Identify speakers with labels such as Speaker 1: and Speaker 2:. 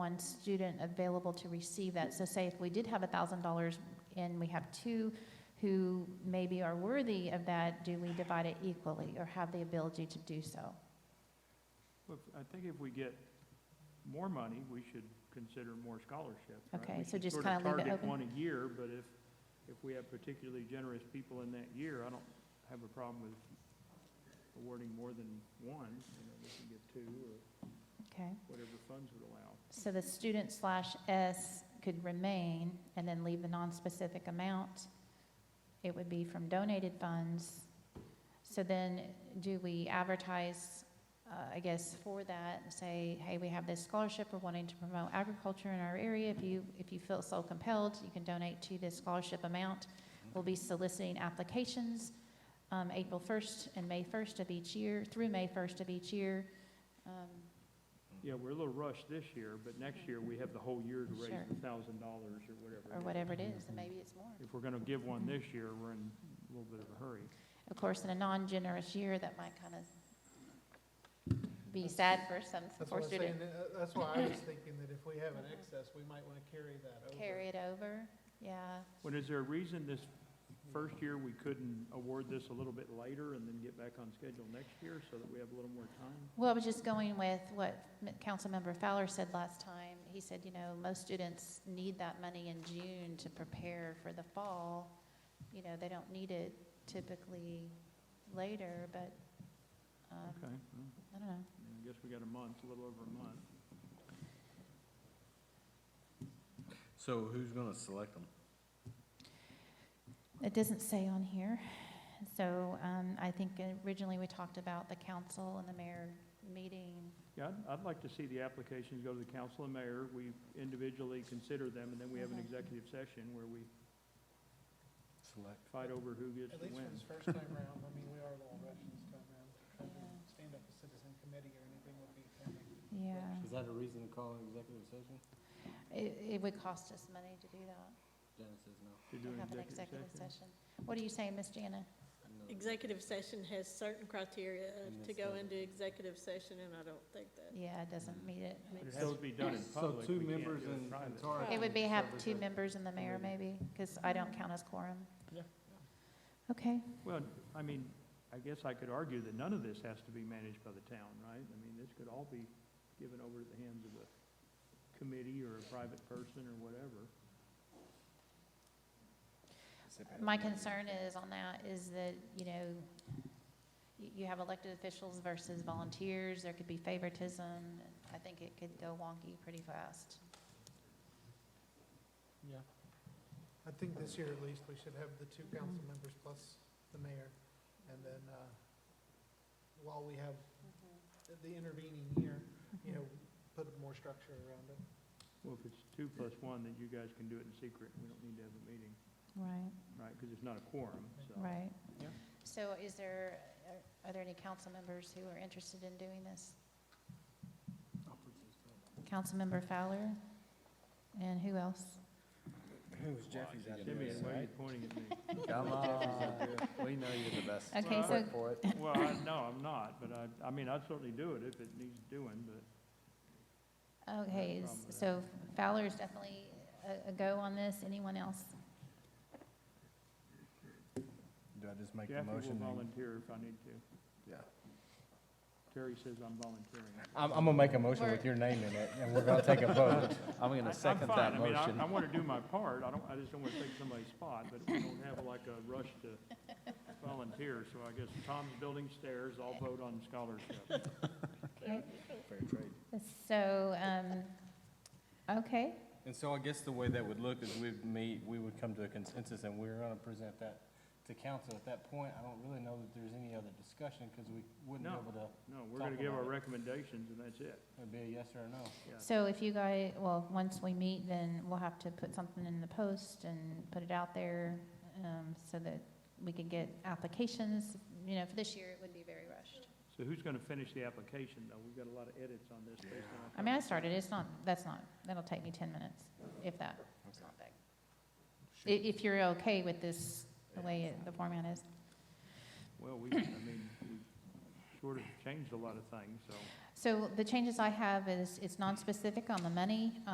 Speaker 1: one student available to receive that. So say if we did have $1,000 and we have two who maybe are worthy of that, do we divide it equally or have the ability to do so?
Speaker 2: Well, if- I think if we get more money, we should consider more scholarships, right?
Speaker 1: Okay,
Speaker 2: We
Speaker 1: so
Speaker 2: should
Speaker 1: just
Speaker 2: sort of
Speaker 1: kinda leave it
Speaker 2: target
Speaker 1: open.
Speaker 2: one a year, but if, if we have particularly generous people in that year, I don't have a problem with awarding more than one, you know, we can get two or
Speaker 1: Okay?
Speaker 2: whatever funds would allow.
Speaker 1: So the student slash S could remain and then leave the non-specific amount. It would be from donated funds. So then do we advertise, uh, I guess, for that and say, hey, we have this scholarship, we're wanting to promote agriculture in our area. If you, if you feel so compelled, you can donate to this scholarship amount. We'll be soliciting applications, um, April first and May first of each year, through May first of each year. Um,
Speaker 2: Yeah, we're a little rushed this year, but next year we have the whole year to raise
Speaker 1: Sure.
Speaker 2: a thousand dollars or whatever.
Speaker 1: or
Speaker 2: it is.
Speaker 1: whatever it is, and maybe it's more.
Speaker 2: If we're gonna give one this year, we're in a little bit of a hurry.
Speaker 1: Of course, in a non-generous year, that might kind of be sad for some,
Speaker 3: That's
Speaker 1: for
Speaker 3: what I'm saying,
Speaker 1: students.
Speaker 3: that- uh, that's why I was thinking that if we have an excess, we might want to carry that over.
Speaker 1: Carry it over, yeah.
Speaker 2: Well, is there a reason this first year we couldn't award this a little bit later and then get back on schedule next year so that we have a little more time?
Speaker 1: Well, I was just going with what M- Councilmember Fowler said last time. He said, you know, most students need that money in June to prepare for the fall. You know, they don't need it typically later, but, um,
Speaker 2: Okay, well,
Speaker 1: I don't know.
Speaker 2: I mean, I guess we got a month, a little over a month.
Speaker 4: So who's gonna select them?
Speaker 1: It doesn't say on here. So um, I think originally we talked about the council and the mayor meeting.
Speaker 2: Yeah, I'd, I'd like to see the applications go to the council and mayor. We individually consider them and then we have an
Speaker 1: Mhm.
Speaker 2: executive session where we
Speaker 4: Select.
Speaker 2: fight over who gets
Speaker 3: At
Speaker 2: to
Speaker 3: least for
Speaker 2: win.
Speaker 3: this first time round, I mean, we are a little rushed this time round. Trying to stand up a citizen committee or anything would be kind of.
Speaker 1: Yeah.
Speaker 4: Is that a reason to call an executive session?
Speaker 1: It, it would cost us money to do that,
Speaker 4: Janet says no.
Speaker 2: To do
Speaker 1: to
Speaker 2: an
Speaker 1: have an executive session. What are you saying, Ms. Jana?
Speaker 4: No.
Speaker 5: Executive session has certain criteria
Speaker 4: And
Speaker 5: to
Speaker 4: that's
Speaker 5: go
Speaker 4: not it.
Speaker 5: into executive session, and I don't think that.
Speaker 1: Yeah, it doesn't meet it.
Speaker 2: Mm. But it
Speaker 5: makes
Speaker 2: has to be done in
Speaker 4: So
Speaker 2: public.
Speaker 4: two
Speaker 2: We can't
Speaker 4: members
Speaker 2: do it
Speaker 4: and
Speaker 2: private.
Speaker 4: Tara.
Speaker 1: It would be have two
Speaker 4: members.
Speaker 1: members and the mayor maybe, because I don't count as quorum.
Speaker 3: Yeah.
Speaker 1: Okay,
Speaker 2: Well, I mean, I guess I could argue that none of this has to be managed by the town, right? I mean, this could all be given over to the hands of a committee or a private person or whatever.
Speaker 1: my concern is on that is that, you know, you, you have elected officials versus volunteers, there could be favoritism. I think it could go wonky pretty fast.
Speaker 3: Yeah. I think this year at least, we should have the two council members plus the mayor. And then, uh, while we have the intervening year, you know, put more structure around it.
Speaker 2: Well, if it's two plus one, then you guys can do it in secret, we don't need to have a meeting,
Speaker 1: Right.
Speaker 2: right? Because it's not a quorum, so.
Speaker 1: Right.
Speaker 2: Yeah.
Speaker 1: So is there, are- are there any council members who are interested in doing this? Councilmember Fowler? And who else?
Speaker 6: Who's Jeffy's out there?
Speaker 2: Simeon, why are you pointing at me?
Speaker 4: Come on, we know you're the best.
Speaker 1: Okay, so,
Speaker 4: Work for it.
Speaker 2: Well, I, no, I'm not, but I, I mean, I'd certainly do it if it needs doing, but
Speaker 1: okay,
Speaker 2: problem with
Speaker 1: so Fowler's definitely a, a go on this. Anyone else?
Speaker 6: Do I just make the
Speaker 2: Jackie will
Speaker 6: motion? then?
Speaker 2: volunteer if I need to.
Speaker 6: Yeah.
Speaker 2: Terry says I'm volunteering.
Speaker 6: I'm, I'm gonna make a motion
Speaker 1: We're-
Speaker 6: with your name in it, and we're gonna take a vote.
Speaker 4: I'm
Speaker 2: I-
Speaker 4: gonna
Speaker 2: I'm
Speaker 4: second
Speaker 2: fine.
Speaker 4: that
Speaker 2: I mean, I-
Speaker 4: motion.
Speaker 2: I want to do my part, I don't, I just don't want to take somebody's spot, but we don't have like a rush to volunteer, so I guess Tom's building stairs, I'll vote on scholarship.
Speaker 1: Okay,
Speaker 6: Fair trade.
Speaker 1: So, um, okay,
Speaker 6: And so I guess the way that would look is we'd meet, we would come to a consensus, and we're gonna present that to council. At that point, I don't really know that there's any other discussion, because we wouldn't be
Speaker 2: No.
Speaker 6: able to,
Speaker 2: No, we're going to
Speaker 6: Talk
Speaker 2: give our
Speaker 6: about it.
Speaker 2: recommendations, and that's it.
Speaker 6: it'd be a yes or a no.
Speaker 2: Yeah.
Speaker 1: so if you guys, well, once we meet, then we'll have to put something in the post and put it out there, um, so that we can get applications. You know, for this year, it would be very rushed.
Speaker 2: So who's going to finish the application, though? We've got a lot of edits on this based on.
Speaker 1: I mean, I started, it's not, that's not, that'll take me 10 minutes, if that. It's not big. I- If you're okay with this, the way it- the format is.
Speaker 2: Well, we, I mean, we sort of changed a lot of things, so.
Speaker 1: So the changes I have is, it's non-specific on the money,